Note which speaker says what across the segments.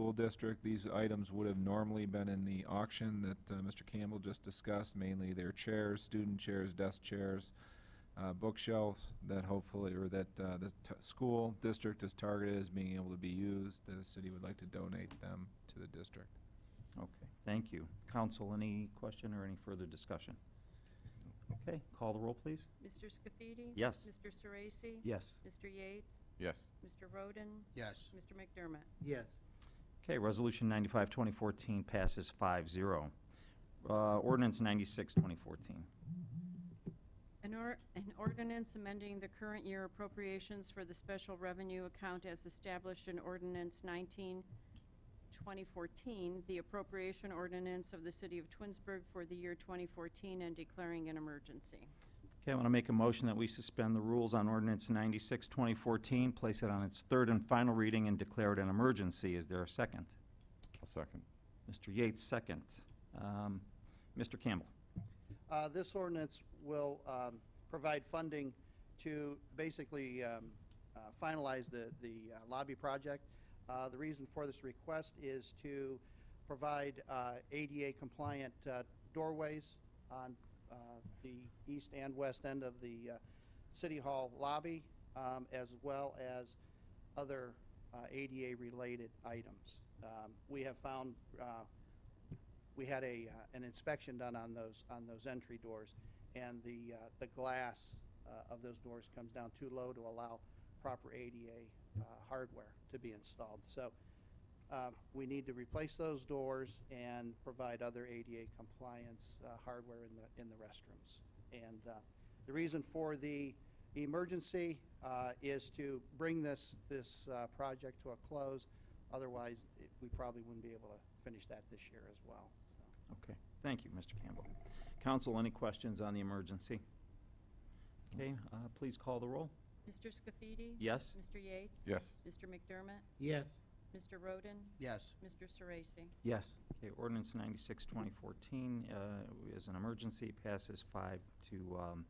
Speaker 1: School District. These items would have normally been in the auction that uh, Mr. Campbell just discussed, mainly their chairs, student chairs, desk chairs, uh, bookshelves that hopefully, or that uh, the t- school district is targeted as being able to be used. The city would like to donate them to the district.
Speaker 2: Okay, thank you. Council, any question or any further discussion? Okay, call the roll, please.
Speaker 3: Mr. Scafidi?
Speaker 2: Yes.
Speaker 3: Mr. Sorese?
Speaker 4: Yes.
Speaker 3: Mr. Yates?
Speaker 5: Yes.
Speaker 3: Mr. Roden?
Speaker 4: Yes.
Speaker 3: Mr. McDermott?
Speaker 4: Yes.
Speaker 2: Okay, Resolution 95, 2014 passes 5-0. Uh, Ordinance 96, 2014.
Speaker 3: An or, an ordinance amending the current year appropriations for the special revenue account as established in ordinance 19, 2014, the appropriation ordinance of the city of Twinsburg for the year 2014 and declaring an emergency.
Speaker 2: Okay, I want to make a motion that we suspend the rules on Ordinance 96, 2014, place it on its third and final reading, and declare it an emergency. Is there a second?
Speaker 5: I'll second.
Speaker 2: Mr. Yates, second. Um, Mr. Campbell?
Speaker 6: Uh, This ordinance will um, provide funding to basically um, uh, finalize the the uh, lobby project. Uh, The reason for this request is to provide uh, ADA-compliant uh, doorways on uh, the east and west end of the uh, City Hall lobby, um, as well as other uh, ADA-related items. Um, We have found uh, we had a, uh, an inspection done on those, on those entry doors, and the, uh, the glass uh, of those doors comes down too low to allow proper ADA uh, hardware to be installed. So uh, we need to replace those doors and provide other ADA compliance uh, hardware in the, in the restrooms. And uh, the reason for the emergency uh, is to bring this, this uh, project to a close. Otherwise, it- we probably wouldn't be able to finish that this year as well. so.
Speaker 2: Okay, thank you, Mr. Campbell. Council, any questions on the emergency? Okay, uh, please call the roll.
Speaker 3: Mr. Scafidi?
Speaker 2: Yes.
Speaker 3: Mr. Yates?
Speaker 5: Yes.
Speaker 3: Mr. McDermott?
Speaker 4: Yes.
Speaker 3: Mr. Roden?
Speaker 4: Yes.
Speaker 3: Mr. Sorese?
Speaker 4: Yes.
Speaker 2: Okay, ordinance 96, 2014 uh, is an emergency, passes 5 to um,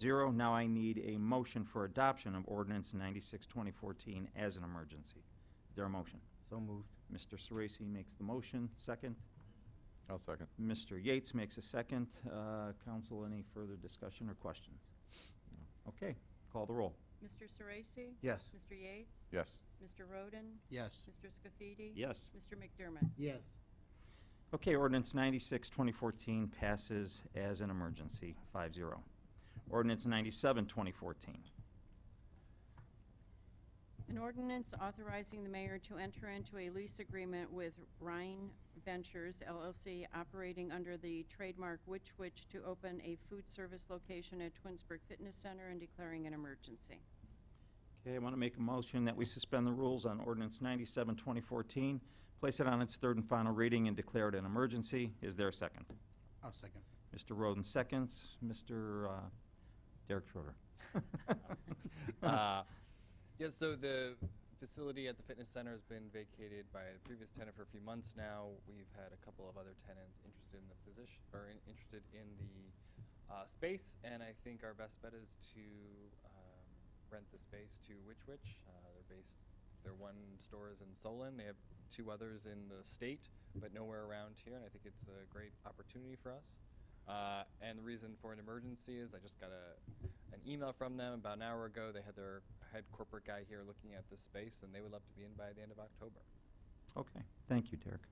Speaker 2: 0. Now I need a motion for adoption of ordinance 96, 2014 as an emergency. Is there a motion?
Speaker 4: So moved.
Speaker 2: Mr. Sorese makes the motion, second.
Speaker 5: I'll second.
Speaker 2: Mr. Yates makes a second. Uh, Council, any further discussion or questions? Okay, call the roll.
Speaker 3: Mr. Sorese?
Speaker 4: Yes.
Speaker 3: Mr. Yates?
Speaker 5: Yes.
Speaker 3: Mr. Roden?
Speaker 4: Yes.
Speaker 3: Mr. Scafidi?
Speaker 2: Yes.
Speaker 3: Mr. McDermott?
Speaker 4: Yes.
Speaker 2: Okay, ordinance 96, 2014 passes as an emergency, 5-0. Ordinance 97, 2014.
Speaker 3: An ordinance authorizing the mayor to enter into a lease agreement with Rhine Ventures LLC operating under the trademark Witch Witch to open a food service location at Twinsburg Fitness Center and declaring an emergency.
Speaker 2: Okay, I want to make a motion that we suspend the rules on ordinance 97, 2014, place it on its third and final reading, and declare it an emergency. Is there a second?
Speaker 4: I'll second.
Speaker 2: Mr. Roden seconds. Mr. uh, Derek Schroeder.
Speaker 7: uh, yeah, so the facility at the fitness center has been vacated by the previous tenant for a few months now. We've had a couple of other tenants interested in the position or in, interested in the uh, space, and I think our best bet is to um, rent the space to Witch Witch. Uh, they're based. Their one store is in Solon. They have two others in the state, but nowhere around here. And I think it's a great opportunity for us. Uh, and the reason for an emergency is I just got a, an email from them about an hour ago. They had their head corporate guy here looking at this space, and they would love to be in by the end of October.
Speaker 2: Okay, thank you, Derek.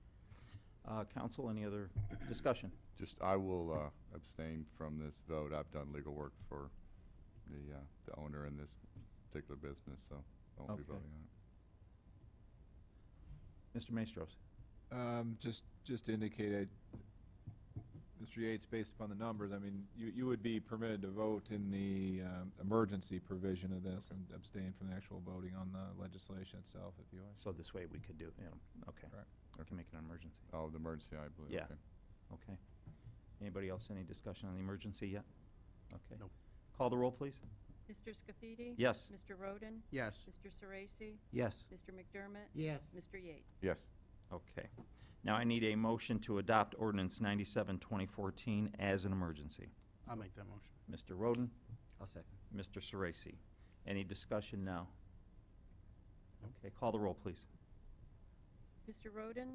Speaker 2: Uh, Council, any other discussion?
Speaker 5: Just, I will uh, abstain from this vote. I've done legal work for the, uh, the owner in this particular business, so I won't be
Speaker 2: Okay.
Speaker 5: voting on it.
Speaker 2: Mr. Maestros?
Speaker 1: Um, just, just to indicate, I- Mr. Yates, based upon the numbers, I mean, you, you would be permitted to vote in the, um, emergency provision of this and abstain from the actual voting on the legislation itself, if you wish.
Speaker 2: So this way we could do, you know, okay.
Speaker 1: Correct.
Speaker 2: We can make it an emergency.
Speaker 5: Oh, the emergency, I believe.
Speaker 2: Yeah.
Speaker 5: okay.
Speaker 2: Okay. Anybody else, any discussion on the emergency yet? Okay.
Speaker 4: No.
Speaker 2: Call the roll, please.
Speaker 3: Mr. Scafidi?
Speaker 2: Yes.
Speaker 3: Mr. Roden?
Speaker 4: Yes.
Speaker 3: Mr. Sorese?
Speaker 4: Yes.
Speaker 3: Mr. McDermott?
Speaker 4: Yes.
Speaker 3: Mr. Yates?
Speaker 5: Yes.
Speaker 2: Okay. Now I need a motion to adopt ordinance 97, 2014 as an emergency.
Speaker 4: I'll make that motion.
Speaker 2: Mr. Roden,
Speaker 4: I'll second.
Speaker 2: Mr. Sorese. Any discussion now? Okay, call the roll, please.
Speaker 3: Mr. Roden?